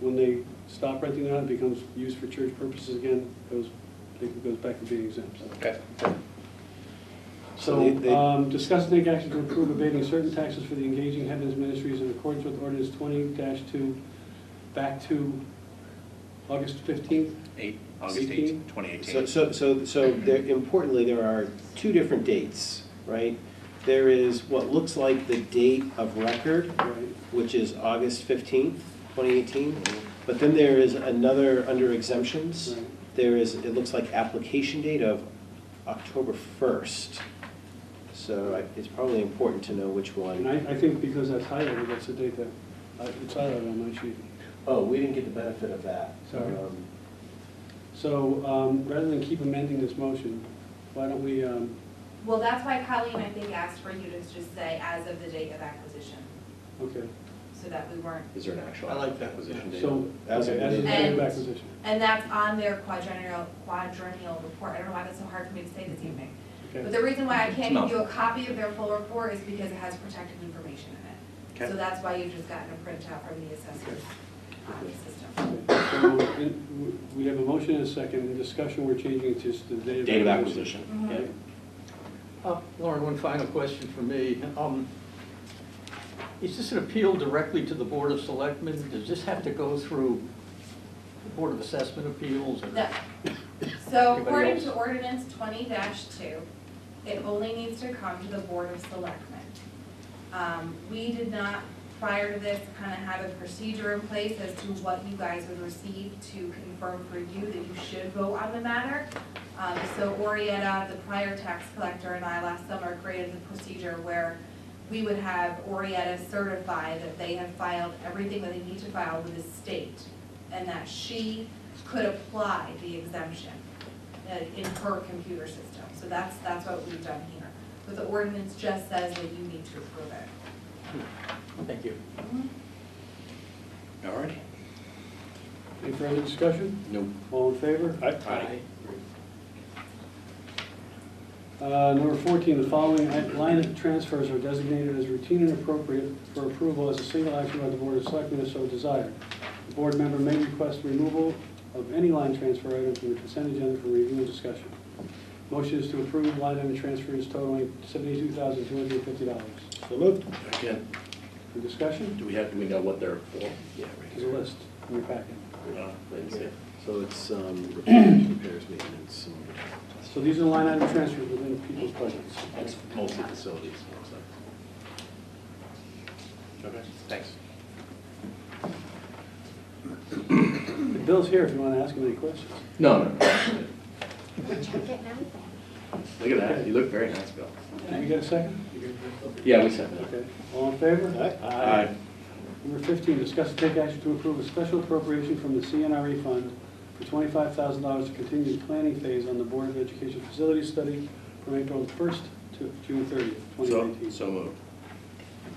when they stop renting it out, it becomes used for church purposes again, goes, it goes back to being exempt. Okay. So they- So, they- um, discuss and take action to approve abating certain taxes for the Engaging Heavens Ministries in accordance with ordinance twenty two, back to August fifteenth. Eight, August Eighteen? eighth, twenty So, eighteen. so, so, so there, importantly, there are two different dates, right? There is what looks like the date of record, Right. which is August fifteenth, twenty eighteen. But then there is another under exemptions. Right. There is, it looks like application date of October first. So I- it's probably important to know which And one. I, I think because that's highlighted, that's the date that, uh, it's highlighted on my sheet. Oh, we didn't get the benefit of that. Sorry. Um, So, um, rather than keep amending this motion, why don't we, um, Well, that's why Colleen, I think, asked for you to just say as of the date of acquisition, okay, so that we weren't, Is there an actual I like that. acquisition date? so, As of okay, the as of the date. date of And- acquisition. and that's on their quadrennial, quadrennial report. I don't know why that's so hard for me to say this evening. But Okay, the reason why I can't No. give you a copy of their full report is because it has protected information in it. Okay. So that's why you've just gotten a printout from the assessor's um, system. Okay, so, in- we have a motion and a second, in discussion, we're changing it to just the date of. Date of acquisition. Mhm. Okay. Uh, Lauren, one final question for me. Um, Is this an appeal directly to the Board of Selectmen? Does this have to go through the Board of Assessment Appeals? or- No. So Anybody according else? to ordinance twenty two, it only needs to come to the Board of Selectmen. Um, we did not, prior to this, kind of have a procedure in place as to what you guys would receive to confirm for you that you should vote on the matter. Um, so Orietta, the prior tax collector, and I last summer created the procedure where we would have Orietta certify that they have filed everything that they need to file with the state, and that she could apply the exemption uh, in her computer system. So that's, that's what we've done here. But the ordinance just says that you need to approve it. Thank you. All righty. Any further discussion? No. All in favor? Aye. Uh, Number 14, the following i- line of transfers are designated as routine and appropriate for approval as a single action by the Board of Selectmen if so desired. The board member may request removal of any line transfer item from the consent agenda for review and discussion. Motion is to approve line item transfers totaling $72,250. So moved. Again, For discussion, do we have, do we know what they're for? Yeah, there's a list in your packet. No, I didn't see it. So it's um, repairs, maintenance, So these are line item transfers within people's budgets. It's mostly facilities, it looks like. Okay, thanks. The Bill's here if you want to ask him any questions. No, no, no. Check it now. Look at that, you look very nice, Bill. Did we get a second? Yeah, we said that. Okay, all in favor? and. Aye. Number 15, discuss and take action to approve a special appropriation from the CNRE E fund for $25,000 to continue the planning phase on the Board of Education facilities study from April 1st to June 30th, So, 2019. so moved.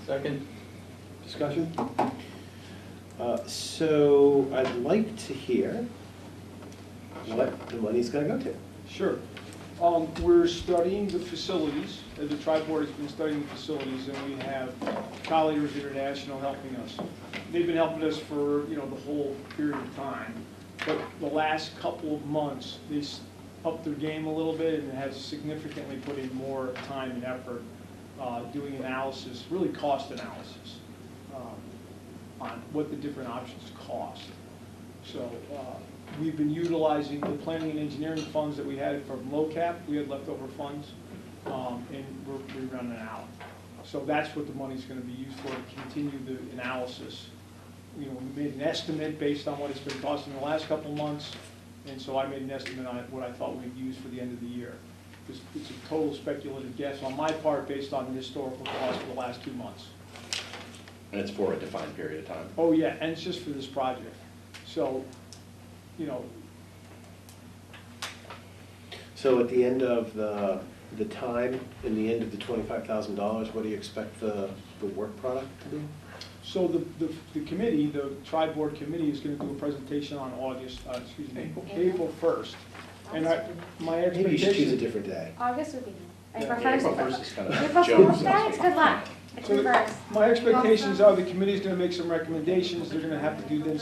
Second? Discussion? Uh, So I'd like to hear what the money's gonna go to. Sure. Um, We're studying the facilities, uh, the tri-board has been studying the facilities, and we have Colliers International helping us. They've been helping us for, you know, the whole period of time, but the last couple of months, they s- upped their game a little bit and has significantly put in more time and effort uh, doing analysis, really cost analysis, um, on what the different options cost. So uh, we've been utilizing the planning and engineering funds that we had from LOCAP, we had leftover funds, um, and we're we're running out. So that's what the money's going to be used for, to continue the analysis. You know, we made an estimate based on what it's been costing the last couple of months, and so I made an estimate on what I thought we'd use for the end of the year. It's it's a total speculative guess on my part based on the historical cost for the last two months. And it's for a defined period of time. Oh, yeah, and it's just for this project. So, you know, So at the end of the, the time, in the end of the twenty-five thousand dollars, what do you expect the, the work product to be? So the, the, the committee, the tri-board committee is gonna do a presentation on August, uh, excuse me, April. April first. And I, my Maybe you should choose a expectation, different day. August would be Yeah, April Yeah, April first. first is kind of April a joke. Fool's so Day, to it's speak. good luck. It's So- reversed. my expectations are the committee's gonna make some recommendations, they're gonna have to do then